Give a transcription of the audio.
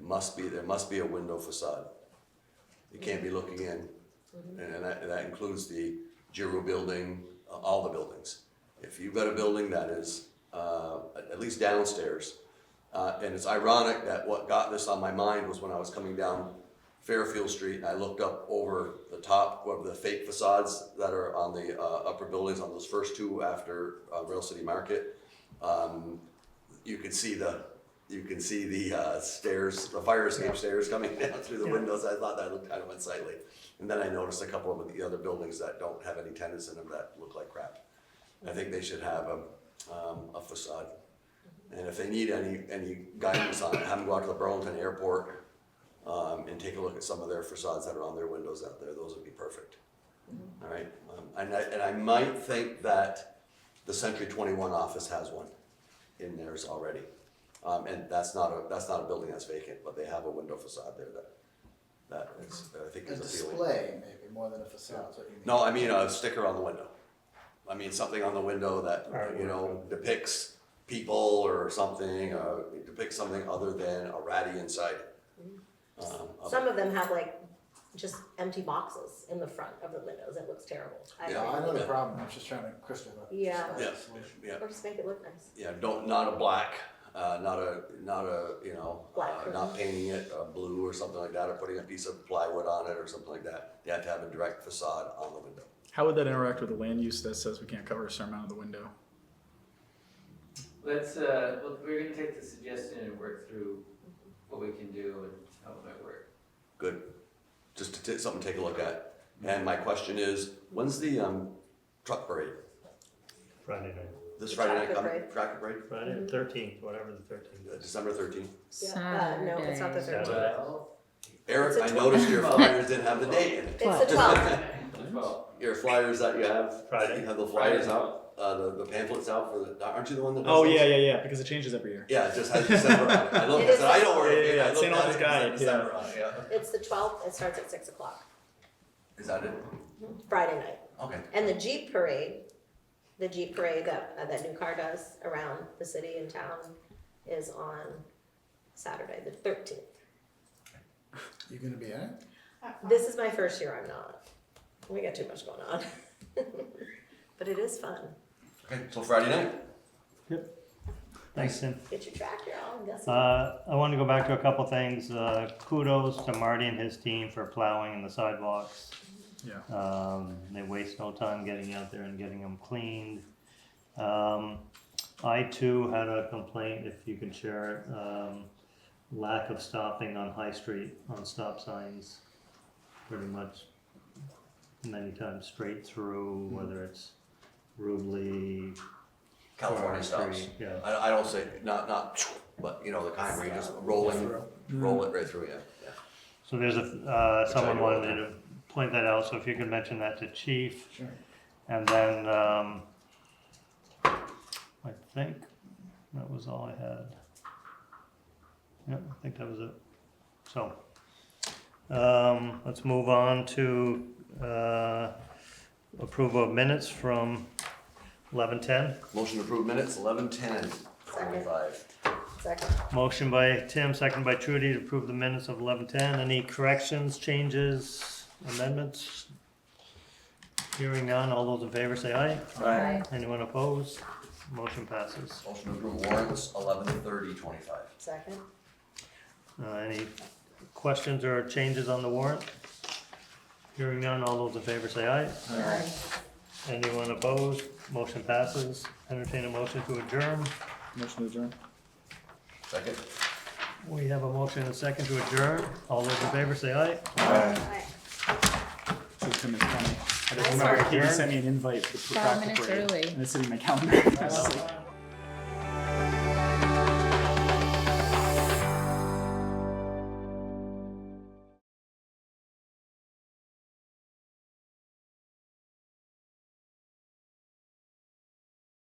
must be, there must be a window facade. You can't be looking in, and and that, that includes the Giroux building, uh, all the buildings. If you've got a building that is, uh, at- at least downstairs, uh, and it's ironic that what got this on my mind was when I was coming down Fairfield Street, and I looked up over the top, whatever the fake facades that are on the, uh, upper buildings, on those first two after, uh, Rail City Market you can see the, you can see the uh, stairs, the fire escape stairs coming down through the windows. I thought that looked kind of unsightly. And then I noticed a couple of the other buildings that don't have any tenants in them that look like crap. I think they should have a, um, a facade. And if they need any, any guidance on it, have them go out to the Burlington Airport, um, and take a look at some of their facades that are on their windows out there. Those would be perfect. All right, um, and I, and I might think that the Century Twenty-One office has one in theirs already. Um, and that's not a, that's not a building that's vacant, but they have a window facade there that, that is, that I think A is appealing. display, maybe, more than a facade, is what you mean. No, I mean a sticker on the window. I mean something on the window that, you know, depicts people or something, uh, depicts something other than a ratty inside. Um, of- Mm-hmm. Some of them have like just empty boxes in the front of the windows. It looks terrible. I No, Yeah. don't- I know the problem, I'm just trying to crystallize. Yeah. Yeah, solution. yeah, Or just make it look nice. yeah, don't, not a black, uh, not a, not a, you know, Black uh, not painting it, uh, blue or something like that, or putting a piece of plywood on it or something like that. You have to have a direct facade on the window. How would that interact with a land use that says we can't cover a certain amount of the window? Let's, uh, well, we're gonna take the suggestion and work through what we can do and how it might work. Good. Just to, ta- something to take a look at. And my question is, when's the, um, truck parade? Friday night, This Friday night, Tractor coming, parade. tractor parade, Friday thirteenth, whatever the thirteenth uh, is. December thirteenth. Yeah, uh, no, it's not the Saturday. thirteenth. Well, Eric, It's I a noticed your twelve. flyers didn't have the date in it. It's the twelfth. well, Your flyers that you have, Friday. you have the flyers Friday. out, uh, the, the pamphlets out for the, aren't you the one that does Oh those? yeah, yeah, yeah. Because it changes every year. Yeah, it just has December on it. I looked, It I is said, I don't worry. Yeah, yeah, I yeah, looked Saint at Elmo's it, it said Guide, yeah. December on it, yeah. It's the twelfth. It starts at six o'clock Is that it? Friday night. Okay. And the Jeep parade, the Jeep parade that uh, that New Car does around the city and town, is on Saturday the thirteenth. You gonna be in it? This is my first year. I'm not. We got too much going on, but it is fun. Okay, till Friday night? Thanks, Tim. Get your tractor on. That's Uh, I want to go back to a couple things. Uh, kudos to Marty and his team for plowing in the sidewalks. Yeah. Um, they waste no time getting out there and getting them cleaned. Um, I too had a complaint, if you can share it, um, lack of stopping on High Street on stop signs. Pretty much many times straight through, whether it's Rubley, California stops. Street, Yeah. I, I don't say, not, not, but you know, the kind where you just rolling, Mm. roll it right through, yeah, yeah. So there's a, uh, Which I someone know wanted of. me to point that out, so if you could mention that to chief, Sure. and then, um, I think that was all I had. Yeah, I think that was it. So, um, let's move on to, uh, approval of minutes from eleven ten. Motion to approve minutes, eleven ten twenty-five. second. Motion by Tim, second by Trudy to approve the minutes of eleven ten. Any corrections, changes, amendments? Hearing none, all those in favor say aye. Aye. Anyone opposed? Motion passes. Motion to approve warrants, eleven thirty twenty-five. Second. Uh, any questions or changes on the warrant? Hearing none, all those in favor say aye. Anyone opposed? Motion passes. Entertain a motion to adjourn. Motion to adjourn. Second? We have a motion and a second to adjourn. All those in favor say aye. Aye. So Tim is funny. I just I remember started he here. sent me an invite for the Five practice minutes parade, early. and it's sitting in my calendar. I was just like,